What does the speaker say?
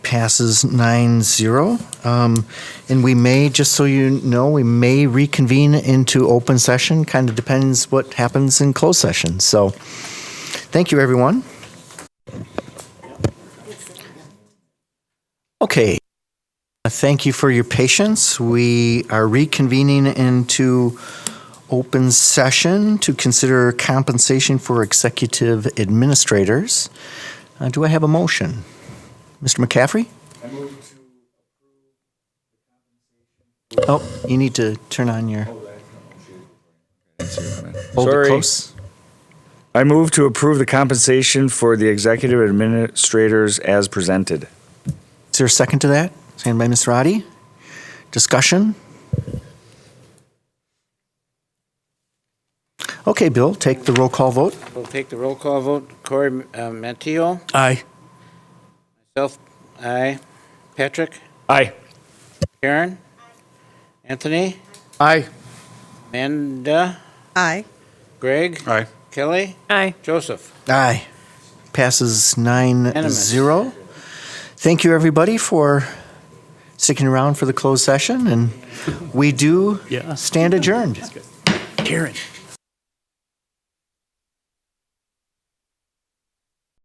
passes 9-0. Um, And we may, just so you know, we may reconvene into open session, kind of depends what happens in closed session. So, thank you, everyone. Okay. Uh, Thank you for your patience. We are reconvening into open session to consider compensation for executive administrators. Uh, Do I have a motion? Mr. McCaffrey? I move to approve the compensation. Oh, you need to turn on your, hold it Sorry. close. I move to approve the compensation for the executive administrators as presented. Is there a second to that? Second by Ms. Roddy. Discussion? Okay, Bill, take the roll call vote. We'll take the roll call vote. Corey uh, Manteo, Aye. myself, aye. Patrick, Aye. Karen, Anthony, Aye. Amanda, Aye. Greg, Aye. Kelly, Aye. Joseph. Aye. Passes nine Unanimous. zero. Thank you, everybody, for sticking around for the closed session, and we do stand adjourned. Karen,